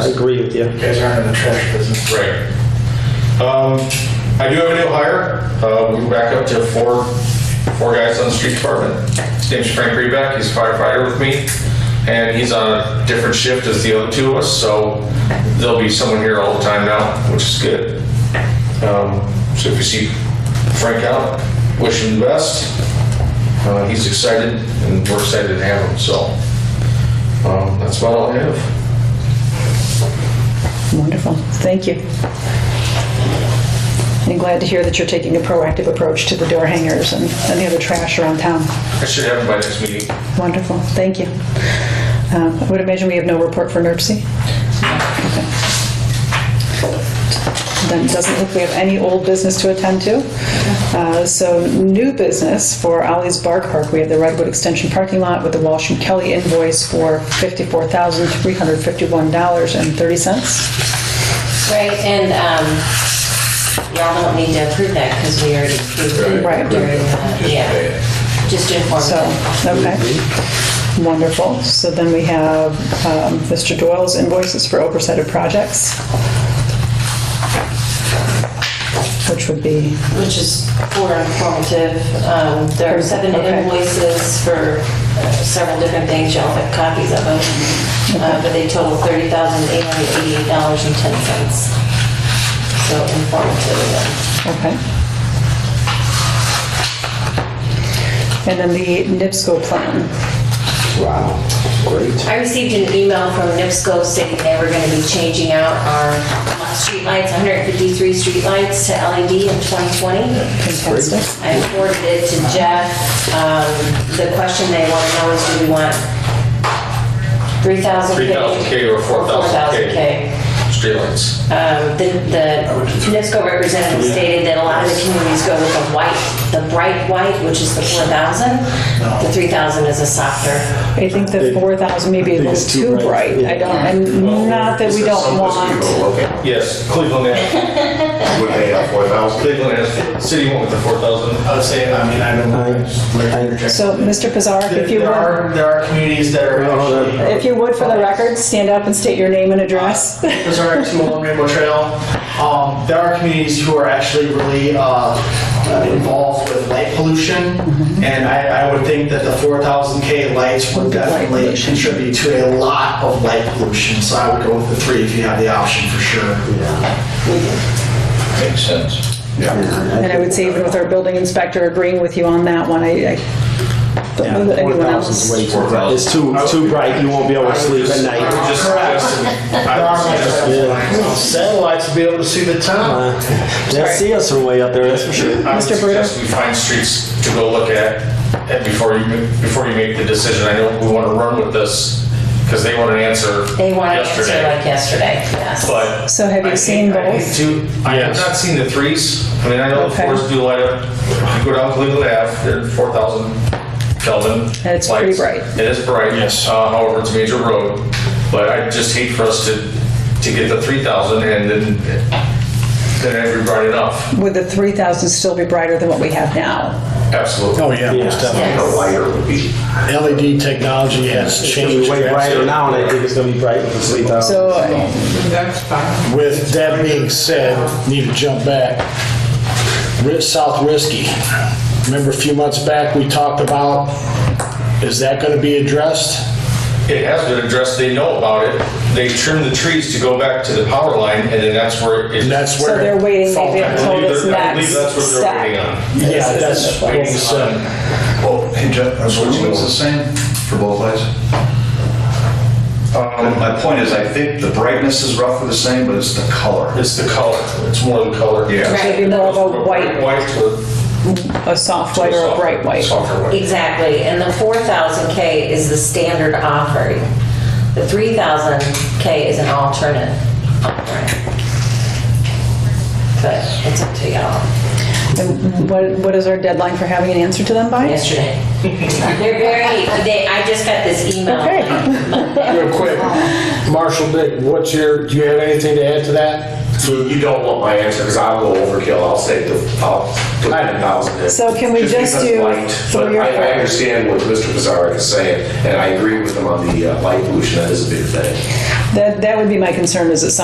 I agree with you. You guys aren't in the trash business. Right. Um, I do have a new hire. Uh, we back up to four, four guys on the street department. His name's Frank Reback. He's a firefighter with me. And he's on a different shift as the other two of us, so there'll be someone here all the time now, which is good. Um, so if you see Frank out, wish him the best. Uh, he's excited and we're excited to have him, so, um, that's about all I have. Wonderful, thank you. I'm glad to hear that you're taking a proactive approach to the door hangers and and the other trash around town. I should have him by next meeting. Wonderful, thank you. Um, I would imagine we have no report for NERC. Then it doesn't look we have any old business to attend to. Uh, So new business for Ollie's Bar Park, we have the Redwood Extension parking lot with the Walsh and Kelly invoice for $54,351.30. Right, and um, y'all don't need to approve that because we already approved it. Right. during the- Yeah, just inform So, them. okay. Wonderful. So then we have um, Mr. Doyle's invoices for oversight of projects, which would be, Which is for informative. Um, There are seven Okay. invoices for uh, several different things, y'all have copies of them. Uh, But they total $30,888.10. So informative of them. okay. And then the NIPSCO plan. Wow, great. I received an email from NIPSCO saying they were going to be changing out our streetlights, 153 streetlights to LED in 2020. Fantastic. I forwarded it to Jeff. Um, The question they want to know is, do we want 3,000? 3,000K or 4,000K? Streetlights. Um, The the NIPSCO representative stated that a lot of the communities go with the white, the bright white, which is the 4,000. The 3,000 is a softer I think the 4,000 may be a think little it's too too bright. bright. I don't, and not that we don't want, Yes, Cleveland has, Would pay out four thousand. Cleveland has, city went with the four thousand. I would say, I mean, I don't know. so Mr. Pizarro, There if you Oh, there were. are, there are communities that are No, no, no. actually. If you would, for the record, stand up and state your name and address. Those are two along Rainbow Trail. Um, there are communities who are actually really uh, uh, involved with light pollution, Mm-hmm. and I, I would think that the 4,000K lights would definitely pollution. contribute to a lot of light pollution, so I would go with the three if you have the option for sure. Makes sense. And I would say even with our building inspector agreeing with you on that one, I, I don't know that anyone else. It's too, it's too bright, you won't be able to sleep at night. Just suggesting, I Satellites to be able to see the town. Uh, They'll see us from way up there, that's for sure. would Mr. Bruder? suggest we find streets to go look at and before you, ma- before you make the decision. I know we want to run with this because they want an answer They want to answer yesterday. like yesterday, yes. But So have you I seen hate- I hate both? to- I Yes. have not seen the threes. I mean, I know the Okay. fours do light up. If You go down Cleveland Ave, they're four thousand Kelvin. And it's pretty lights. bright. It is bright. Yes. However, it's a major road, but I just hate for us to, to get the three thousand and then, then it'd be bright enough. Would the 3,000 still be brighter than what we have now? Absolutely. Oh, yeah. Yes. LED E technology has It'll be changed way brighter now, and I think it's gonna be bright with the sleep out. So uh, With that being said, need to jump back. Ri- South Risky. Remember a few months back, we talked about, is that going to be addressed? It has been addressed. They know about it. They trim the trees to go back to the power line and then that's where it. And that's so where, they're waiting, they've I been told believe it's that- I believe next that's what they're waiting step. on. yeah, that's what we Waiting said. on- Oh, hey Jeff, are switching the same for both lights? Um, My point is, I think the brightness is roughly the same, but it's the color. It's the color. It's more the color. Yeah. So it'd be more of a white, White to a soft white or a bright white. Softer white. Exactly, and the four thousand K is the standard offering. The three thousand K is an alternate offering. But it's up to y'all. And what, what is our deadline for having an answer to them by? Yesterday. They're very, they, I just got this email. Okay. Real quick, Marshall Dick, what's your, do you have anything to add to that? You don't want my answer, because I'll go overkill, I'll say the, I'll put I- ten thousand in. So can we just because do light, three But or I, I four? understand what Mr. Pizarro is saying, and I agree with him on the uh, light pollution, that is a big thing. That, that would be my concern, is that some